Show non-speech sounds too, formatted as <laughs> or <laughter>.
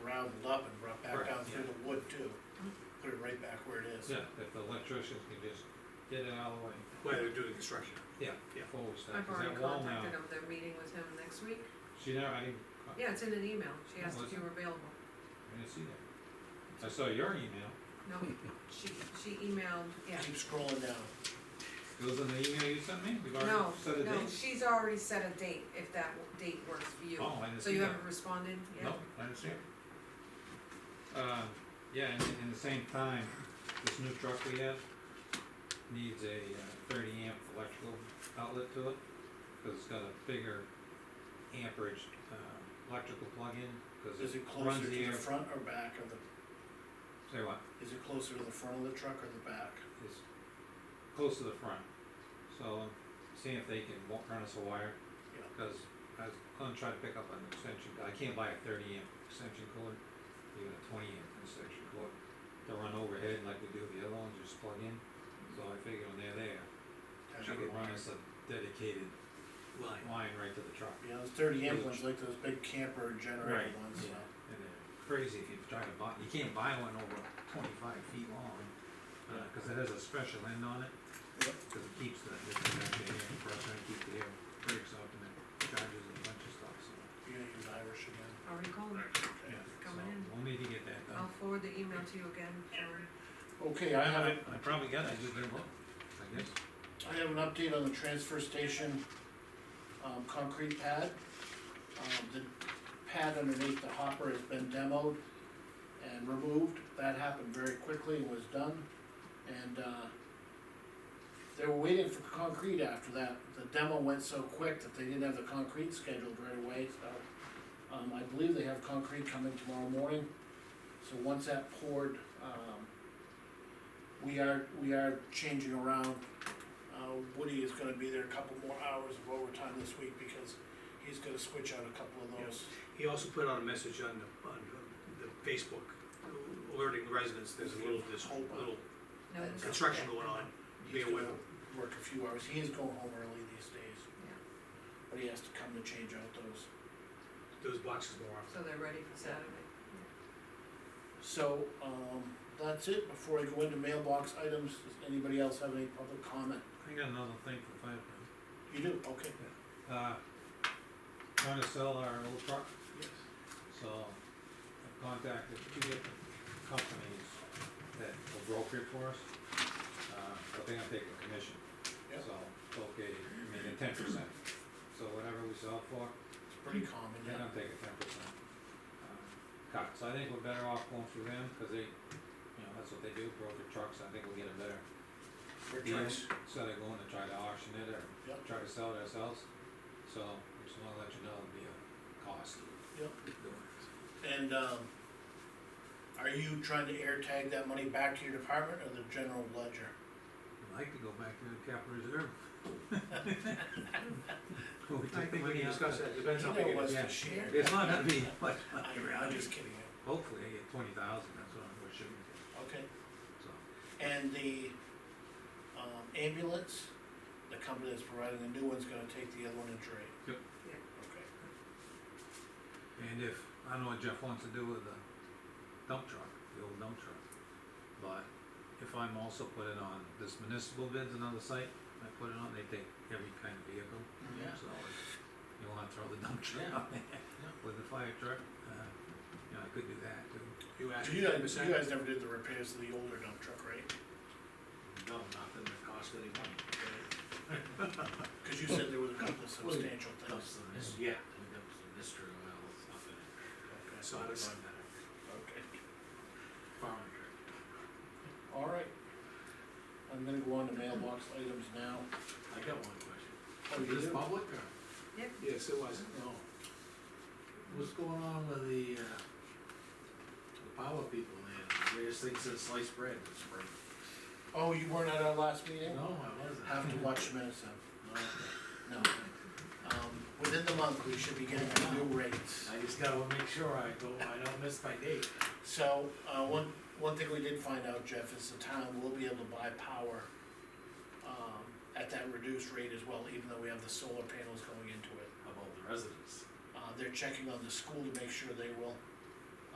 rounded up and brought back Right, down through yeah. the wood too. Put it right back where it is. Yeah, if the electricians can just get it out of the way, While they're doing construction. yeah, Yeah. forward I've stuff, cause already that wall now, contacted him, they're meeting with him next week. she never, I didn't, co- Yeah, it's in an email, she asked if Was it? you were available. I didn't see that. I saw your email, No, she, she emailed, yeah. Keep scrolling down. it was in the email you sent me, we've already No, set a date? no, she's already set a date, if that w- date works for you. Oh, I didn't So see you that. haven't responded yet? No, I understand. Uh, yeah, and, and the same time, this new truck we have needs a uh, thirty amp electrical outlet to it, cause it's got a bigger amperage, uh, electrical plug-in, cause Is it it runs closer the to air. the front or back of the, Say what, is it closer to the front of the truck or the back? it's close to the front, so seeing if they can wa- run us a wire, Yeah. cause I was gonna try to pick up an extension, I can't buy a thirty amp extension cord, even a twenty amp extension cord. To run overhead like we do the other ones, just plug in, so I figure when they're there, I Actually, could run us a dedicated Line. line right to the truck. You know, those thirty amp ones, like those big camper generator Right, ones, yeah, so. and they're crazy if you try to buy, you can't buy one over twenty-five feet long, uh, cause it has a special end on it. Yep. Cause it keeps the, it can actually air compressor and keep the air breaks up and it charges a bunch of stuff, so. You're gonna use Irish again. Already called her. Okay. Coming So, in. We'll need to get that I'll done. forward the email to you again, Sharon. Okay, Oh. I have, a- I probably got it, I just didn't look, I guess. I have an update on the transfer station, um, concrete pad. Um, the pad underneath the hopper has been demoed and removed, that happened very quickly and was done. And, uh, they were waiting for concrete after that, the demo went so quick that they didn't have the concrete scheduled right away, so. Um, I believe they have concrete coming tomorrow morning, so once that poured, um, we are, we are changing around uh, Woody is gonna be there a couple more hours of overtime this week because he's gonna switch out a couple of those. He also put out a message on the, on the Facebook alerting residents, there's a little, this whole little No, And it's- construction going on. Be He's aware. gonna Work a few hours, he is going home early these days, Yeah, but he has to come to change out those. Those boxes more often. so they're ready for Saturday. So, um, that's it, before I go into mailbox items, does anybody else have any public comment? I got another thing for five minutes. You do, okay. uh, trying to sell our old truck, so I've contacted two different companies that will broker it for us. Uh, but they're gonna take a commission, Yep. so, okay, I mean, a ten percent, so whatever we sell for, It's pretty common, they're yeah. gonna take a ten percent uh, cut, so I think we're better off going through them, cause they, you know, that's what they do, broker trucks, I think we'll get a better We're deal, trying- instead of going to try to auction it or Yep. try to sell it ourselves. So, I just wanna let you know it'll be a cost. Yep. doing it. And, um, are you trying to air tag that money back to your department or the general ledger? <laughs> I'd like to go back to the capital <laughs> reserve. I think we can discuss that, depends how big Either it was is. yeah. the share. It's not gonna <laughs> be much I- money I'm around, just kidding, hopefully I get twenty thousand, that's what I'm wishing, okay. so. And the, um, ambulance, the company that's providing the new one's gonna take the other one and trade. Yep. Yeah. Okay, And if, I don't know what Jeff wants to do with the dump truck, the old dump truck, but if I'm also put it on this municipal bids, another site, I put it on, they take every kind of vehicle. Yeah. So if you wanna throw the dump truck on there with the fire truck, uh, you know, I could do that too. You asked So you me ten guys, you percent? guys never did the repairs to the older dump truck, right? No, not that it costs any money. Cause you said there was a couple of Well, substantial things. That's the mystery, Yeah. I think that was the mystery, well, it's not gonna, Okay. So it's Okay, farming trip. all right. I'm gonna go on to mailbox items now. I got one question. Oh, Is you this do? public or, Yes, it was. no? What's going on with the, uh, the power people there, they just think it's sliced bread this spring? Oh, you weren't at our last meeting? No, I wasn't. Have to watch the minutes then, No, okay. no. Um, within the month, we should be getting our new rates. I just gotta make sure I go, I don't miss my date. So, uh, one, one thing we did find out, Jeff, is the town will be able to buy power, um, at that reduced rate as well, even though we have the solar panels going into it. How About the residents. Uh, they're checking on the school to make sure they will,